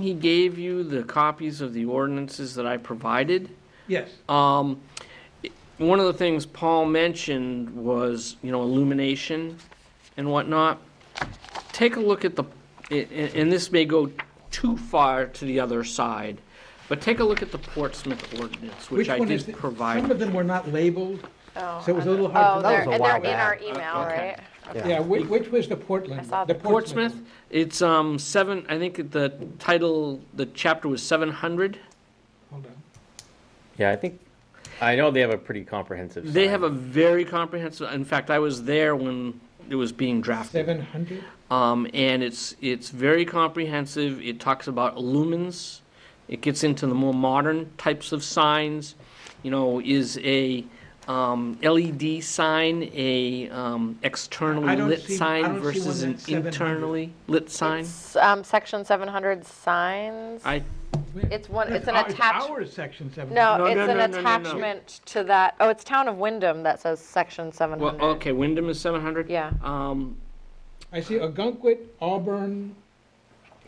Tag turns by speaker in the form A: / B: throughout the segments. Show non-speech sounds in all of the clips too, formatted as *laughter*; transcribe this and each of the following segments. A: He gave you the copies of the ordinances that I provided.
B: Yes,
A: Um, it- One of the things Paul mentioned was, you know, illumination and whatnot. Take a look at the, a- a- and this may go too far to the other side, but take a look at the Portsmouth ordinance, which
B: which
A: I
B: one is,
A: did
B: the-
A: provide.
B: some of them were not labeled,
C: Oh,
B: So it was a
C: on the-
B: little hard to
C: oh,
B: know.
C: they're-
B: That
D: was a
C: And
D: while
C: they're in our
D: back.
C: email,
A: Okay.
C: right?
B: yeah, which, which was the Portland,
C: I saw
B: the
C: the-
B: Portsmouth?
A: Portsmouth, it's um, seven, I think the title, the chapter was 700.
B: Hold on.
D: Yeah, I think, I know they have a pretty comprehensive.
A: They
D: sign.
A: have a very comprehensive, in fact, I was there when it was being drafted.
B: Seven hundred?
A: Um, and it's, it's very comprehensive. It talks about lumens. It gets into the more modern types of signs. You know, is a um, LED sign a um,
B: I
A: externally
B: don't
A: lit
B: see- I
A: sign
B: don't see one
A: versus an
B: that's 700.
A: internally lit sign?
C: It's, um, section seven hundred signs.
A: I,
C: It's one, it's an
B: That's our-
C: attachment.
B: Our section seven.
C: No,
A: No,
C: it's
A: no, no,
C: an
A: no, no, no.
C: attachment to that, oh, it's Town of Wyndham that says section seven
A: well,
C: hundred.
A: okay, Wyndham is 700.
C: Yeah.
A: Um,
B: I see Ogunquit, Auburn,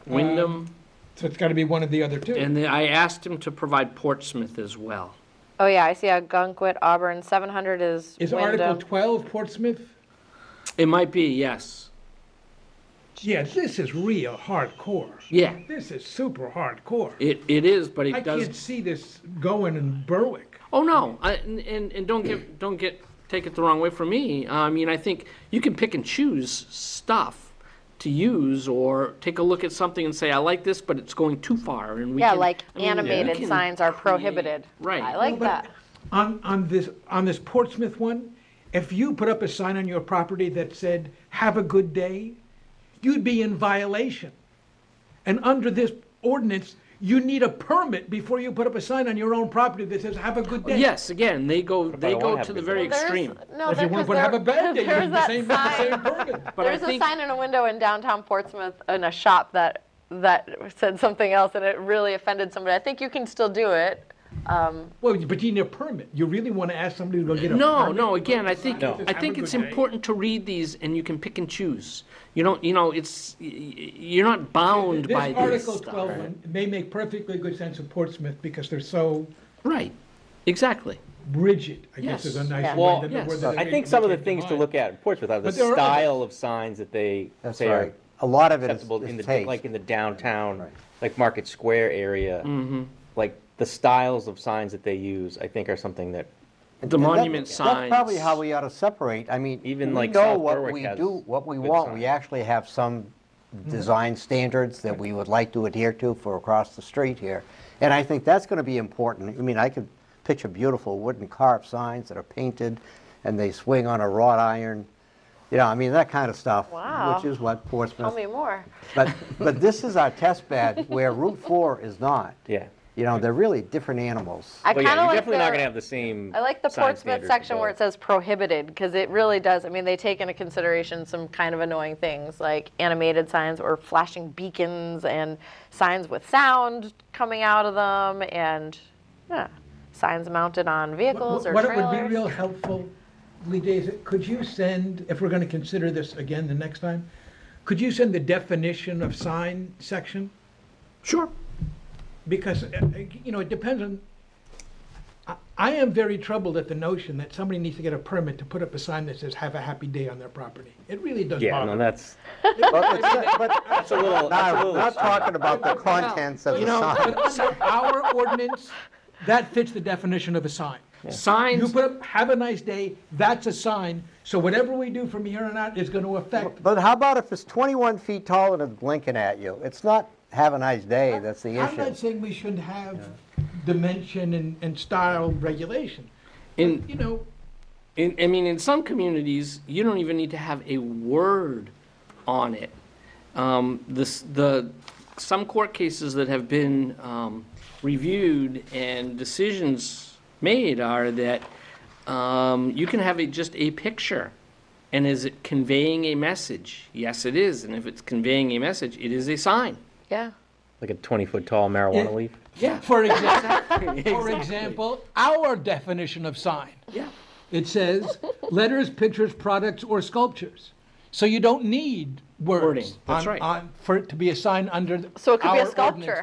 A: Wyndham,
B: Um, so it's gotta be one of the other two.
A: and then I asked him to provide Portsmouth as well.
C: Oh, yeah, I see Algonquin, Auburn, seven hundred is
B: Is Article
C: Wyndham.
B: twelve Portsmouth?
A: It might be, yes.
B: Yeah, this is real hardcore.
A: Yeah,
B: This is super hardcore.
A: it, it is, but
B: I
A: it does
B: can't see this going in Berwick.
A: Oh no, I, and, and and don't get *clears throat* don't get take it the wrong way from me. I mean, I think you can pick and choose stuff to use, or take a look at something and say, I like this, but it's going too far, and we
C: Yeah,
A: can-
C: like
A: I mean, we
C: animated
A: can
C: signs are
A: create-
C: prohibited.
A: Right.
C: I
B: Well,
C: like
B: but
C: that.
B: On, on this, on this Portsmouth one, if you put up a sign on your property that said, "Have a good day," you'd be in violation. And under this ordinance, you need a permit before you put up a sign on your own property that says, "Have a good day."
A: Yes, again, they go they
D: I wanna
A: go
D: have
A: to the
D: good
A: very
C: Well, there's-
A: extreme.
B: If
C: No,
B: you
C: there-
B: want
C: 'cause
B: to have a
C: there-
B: bad
C: *laughs*
B: day, you
C: there's
B: need the
C: that
B: same, the
C: sign.
B: same permit.
A: But I
C: There's a
A: think
C: sign in a window in downtown Portsmouth in a shop that that said something else, and it really offended somebody. I think you can still do it.
B: Well, but you need a permit. You really want to ask somebody to go get a
A: no,
B: permit?
A: no. Again, I think
D: No.
A: I think it's important to read these, and you can pick and choose. You don't, you know, it's y- y- you're not bound by
B: This
A: this
B: Article
A: stuff.
B: 12 one may make perfectly good sense in Portsmouth because they're so
A: Right, exactly.
B: rigid, I guess is a
A: Yes.
B: nice
C: Yeah.
B: word.
D: Well,
B: than the
A: yes.
B: word that
D: I
B: they-
D: think
B: they
D: some of the
B: can't
D: things to
B: define.
D: look at in Portsmouth are the
B: But there are
D: style of signs that they
E: That's
D: say are
E: right. A lot of it is
D: acceptable in the,
E: is
D: da-
E: taste.
D: like in the downtown,
E: Right.
D: like Market Square
A: Mm-hmm.
D: area. Like the styles of signs that they use, I think are something that,
A: The
E: And that-
A: monument signs.
E: That's probably how we ought to separate. I mean, we
D: Even like
E: know
D: South
E: what
D: Berwick
E: we
D: has
E: do, what we
D: good
E: want. We
D: signs.
E: actually have some
A: Mm-hmm.
E: design standards that we would like to adhere to for across the street here. And I think that's going to be important. I mean, I could picture beautiful wooden carved signs that are painted and they swing on a wrought iron, you know, I mean, that kind of stuff.
C: Wow.
E: Which is what
C: Tell
E: Portsmouth
C: me more.
E: *laughs* But, but this is our test bed where Route 4 is not.
D: yeah.
E: You know, they're really different animals.
C: I kind
D: Well, yeah,
C: of
D: you're
C: like
D: definitely not gonna
C: the.
D: have the same.
C: I like the
D: sign
C: Portsmouth
D: standards
C: section where
D: available.
C: it says prohibited because it really does. I mean, they take into consideration some kind of annoying things like animated signs or flashing beacons and signs with sound coming out of them and yeah, signs mounted on vehicles or
B: What it would be
C: trailers.
B: real helpful, Lee Days, could you send, if we're going to consider this again the next time, could you send the definition of sign section?
A: Sure.
B: Because, uh, uh, you know, it depends on, I- I am very troubled at the notion that somebody needs to get a permit to put up a sign that says, "Have a happy day" on their property. It really does
D: Yeah, no,
B: bother me.
D: that's,
E: But it's- but-
D: that's a little, that's a
E: Now, we're
D: little.
E: not talking about the contents of
A: You
E: the
A: know,
E: sign.
B: But under our ordinance, that fits the definition of a sign. You
A: Signs,
B: put up, "Have a nice day," that's a sign, so whatever we do from here on out is going to affect
E: But how about if it's 21 feet tall and it's blinking at you? It's not have a nice day, that's the
B: I'm not
E: issue.
B: saying we shouldn't have dimension and, and style regulation.
A: in,
B: You know,
A: in, I mean, in some communities, you don't even need to have a word on it. Um, this, the, some court cases that have been, um, reviewed and decisions made are that, um, you can have a, just a picture. And is it conveying a message? Yes, it is. And if it's conveying a message, it is a sign.
C: yeah.
D: Like a twenty-foot tall marijuana leaf.
A: Yeah.
B: *laughs*
A: *laughs*
B: for example, for
A: Exactly.
B: example, our definition of sign,
A: Yeah.
B: it says letters, pictures, products, or sculptures. So you don't need words
A: Wording, that's
B: on-
A: right.
B: on- for it to be a sign under.
C: So it could be
B: our
C: a
B: ordinance.
C: sculpture.